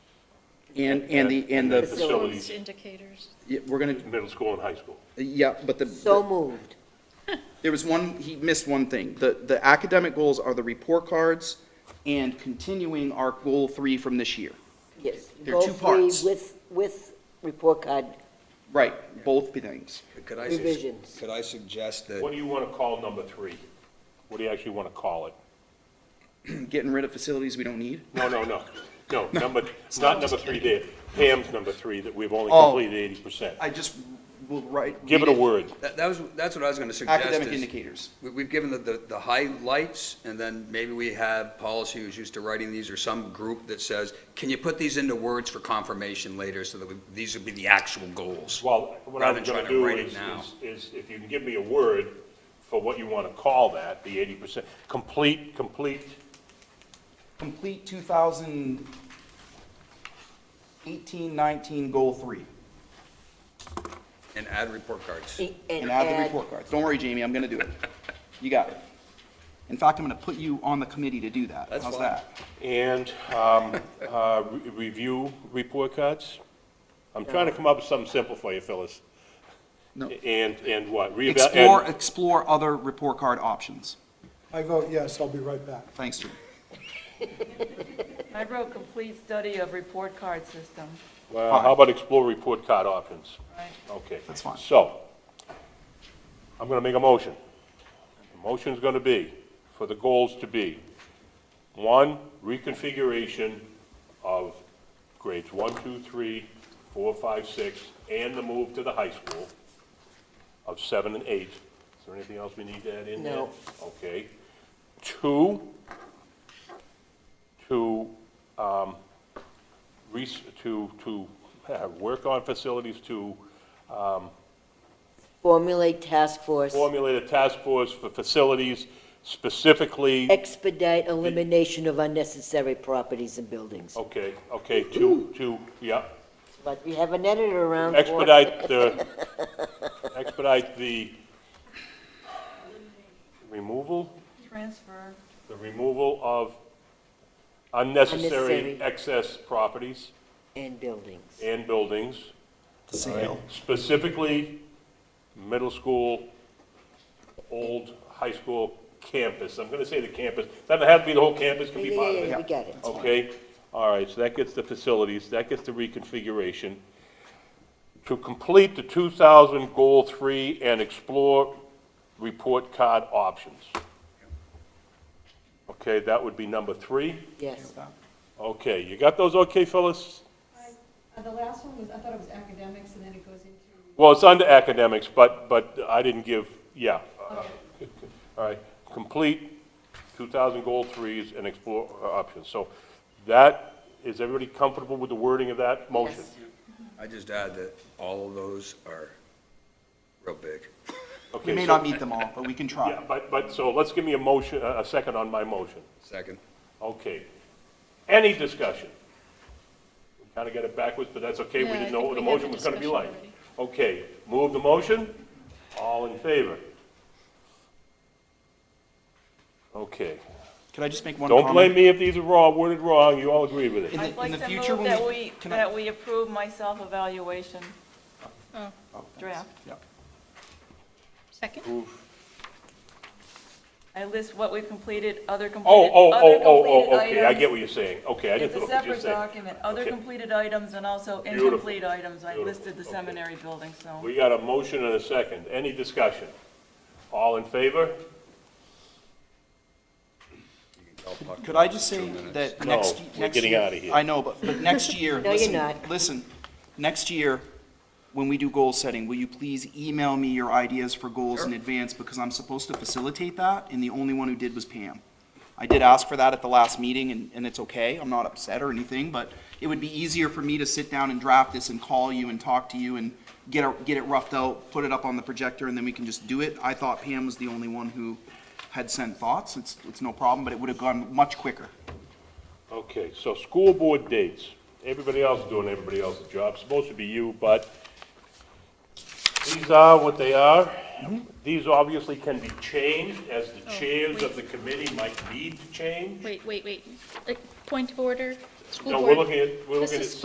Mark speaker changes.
Speaker 1: And, and the, and
Speaker 2: That's
Speaker 1: the,
Speaker 2: so-
Speaker 3: Performance
Speaker 2: Facilities.
Speaker 3: indicators.
Speaker 1: yeah, we're gonna,
Speaker 2: middle school and high school.
Speaker 1: yeah, but the.
Speaker 4: So moved.
Speaker 1: There was one, he missed one thing. The, the academic goals are the report cards and continuing our goal three from this year.
Speaker 4: Yes.
Speaker 1: There are two
Speaker 4: Goal three
Speaker 1: parts.
Speaker 4: With, with report card
Speaker 1: Right, both things.
Speaker 5: Could I, sus-
Speaker 4: Revisions.
Speaker 5: could I suggest that,
Speaker 2: What do you want to call number three? What do you actually want to call it?
Speaker 1: Getting rid of facilities we don't need.
Speaker 2: No, no, no, no, number, not number three there, Pam's number three, that we've only
Speaker 1: Oh.
Speaker 2: completed eighty percent.
Speaker 1: I just will write.
Speaker 2: Give it a word.
Speaker 5: that that was, that's what I was going to suggest.
Speaker 1: Academic
Speaker 5: is-
Speaker 1: indicators.
Speaker 5: we- We've given the- the, the highlights, and then maybe we have policy who's used to writing these, or some group that says, can you put these into words for confirmation later, so that we- these would be the actual goals?
Speaker 2: Well, what I
Speaker 5: Rather
Speaker 2: was
Speaker 5: than
Speaker 2: gonna
Speaker 5: trying
Speaker 2: do
Speaker 5: to write it
Speaker 2: is,
Speaker 5: now.
Speaker 2: is, is if you can give me a word for what you want to call that, the eighty percent, complete, complete,
Speaker 1: Complete 2018, 19, goal three.
Speaker 5: And add report cards.
Speaker 4: and
Speaker 1: And
Speaker 4: and
Speaker 1: add the
Speaker 4: add,
Speaker 1: report cards. Don't worry, Jamie, I'm gonna do it. You got it. In fact, I'm gonna put you on the committee to do that.
Speaker 5: That's
Speaker 1: How's
Speaker 5: fine.
Speaker 1: that?
Speaker 2: and, um, uh, re- review report cards? I'm trying to come up with something simple for you, Phyllis.
Speaker 1: No.
Speaker 2: And, and what? Reeva- and-
Speaker 1: Explore, explore other report card options.
Speaker 6: I vote yes, I'll be right back.
Speaker 1: Thanks, Jim.
Speaker 7: I wrote complete study of report card system.
Speaker 2: Well,
Speaker 1: Fine.
Speaker 2: how about explore report card options?
Speaker 7: Right.
Speaker 2: Okay.
Speaker 1: That's fine.
Speaker 2: So, I'm gonna make a motion. The motion's gonna be, for the goals to be, one, reconfiguration of grades one, two, three, four, five, six, and the move to the high school of seven and eight. Is there anything else we need to add in there?
Speaker 4: No.
Speaker 2: Okay. Two, to um, res- to, to uh, work on facilities to
Speaker 4: formulate task force,
Speaker 2: formulate a task force for facilities specifically,
Speaker 4: expedite elimination of unnecessary properties and buildings.
Speaker 1: Oh.
Speaker 2: okay, okay, to, to, yeah,
Speaker 4: But we have an editor around. for it.
Speaker 2: expedite the, expedite the removal,
Speaker 7: Transfer,
Speaker 2: the removal of unnecessary
Speaker 4: Unnecessary.
Speaker 2: excess properties
Speaker 4: And buildings.
Speaker 2: and buildings,
Speaker 1: Sale.
Speaker 2: specifically middle school, old high school campus. I'm gonna say the campus, doesn't have to be the whole campus, can be
Speaker 4: Yeah,
Speaker 2: part of
Speaker 4: yeah,
Speaker 2: it.
Speaker 4: yeah, we got it.
Speaker 2: Okay, all right, so that gets the facilities, that gets the reconfiguration. To complete the 2,000 Goal 3 and explore report card options. Okay, that would be number three.
Speaker 4: Yes.
Speaker 2: Okay, you got those okay, Phyllis?
Speaker 8: Uh, The last one was, I thought it was academics, and then it goes into
Speaker 2: Well, it's under academics, but, but I didn't give, yeah. All right, complete 2,000 Goal 3s and explore uh, options. So that, is everybody comfortable with the wording of that motion?
Speaker 5: I just add that all of those are real big.
Speaker 1: We
Speaker 2: Okay,
Speaker 1: may
Speaker 2: so-
Speaker 1: not meet them all, but we can try.
Speaker 2: Yeah, but, but, so let's give me a motion, a a second on my motion.
Speaker 5: Second.
Speaker 2: Okay. Any discussion? We Kind of got it backwards, but that's okay, we
Speaker 3: Yeah, I
Speaker 2: didn't know
Speaker 3: think
Speaker 2: what the
Speaker 3: we had
Speaker 2: motion
Speaker 3: the
Speaker 2: was going to be like.
Speaker 3: discussion
Speaker 2: Okay, move the motion, all in favor? Okay.
Speaker 1: Could I just make one comment?
Speaker 2: Don't blame me if these are wrong, worded wrong, you all agree
Speaker 1: In
Speaker 2: with it.
Speaker 1: the-
Speaker 7: I'd like
Speaker 1: in the
Speaker 7: to
Speaker 1: future,
Speaker 7: move
Speaker 1: when
Speaker 7: that
Speaker 1: we-
Speaker 7: we,
Speaker 1: can I-
Speaker 7: that we approve my self-evaluation
Speaker 1: Oh, thanks.
Speaker 7: draft.
Speaker 1: Yep.
Speaker 3: Second?
Speaker 7: I list what we've completed, other
Speaker 2: Oh,
Speaker 7: completed.
Speaker 2: oh,
Speaker 7: other
Speaker 2: oh, oh, oh,
Speaker 7: completed
Speaker 2: okay, I
Speaker 7: items.
Speaker 2: get what you're saying, okay, I
Speaker 7: It's
Speaker 2: didn't know
Speaker 7: a
Speaker 2: what you're
Speaker 7: separate
Speaker 2: saying.
Speaker 7: document, other
Speaker 2: Okay.
Speaker 7: completed items and also
Speaker 2: Beautiful.
Speaker 7: incomplete items. I
Speaker 2: Beautiful.
Speaker 7: listed the
Speaker 2: Okay.
Speaker 7: seminary building, so.
Speaker 2: We got a motion and a second, any discussion? All in favor?
Speaker 1: Could I just say that
Speaker 2: No,
Speaker 1: next,
Speaker 2: we're
Speaker 1: next year?
Speaker 2: getting outta here.
Speaker 1: I know, but, but next year,
Speaker 4: No, you're
Speaker 1: listen,
Speaker 4: not.
Speaker 1: listen, next year, when we do goal setting, will you please email me your ideas for goals in advance? Because I'm supposed to facilitate that, and the only one who did was Pam. I did ask for that at the last meeting, and, and it's okay, I'm not upset or anything, but it would be easier for me to sit down and draft this and call you and talk to you and get it, get it roughed out, put it up on the projector, and then we can just do it. I thought Pam was the only one who had sent thoughts, it's, it's no problem, but it would have gone much quicker.
Speaker 2: Okay, so school board dates, everybody else is doing everybody else's job, supposed to be you, but these are what they are. These obviously can be changed, as the chairs of the committee might need to change.
Speaker 3: Wait, wait, wait. Uh, Point of order? School
Speaker 2: No, we're
Speaker 3: board-
Speaker 2: looking at, we're
Speaker 3: This
Speaker 2: looking at
Speaker 3: is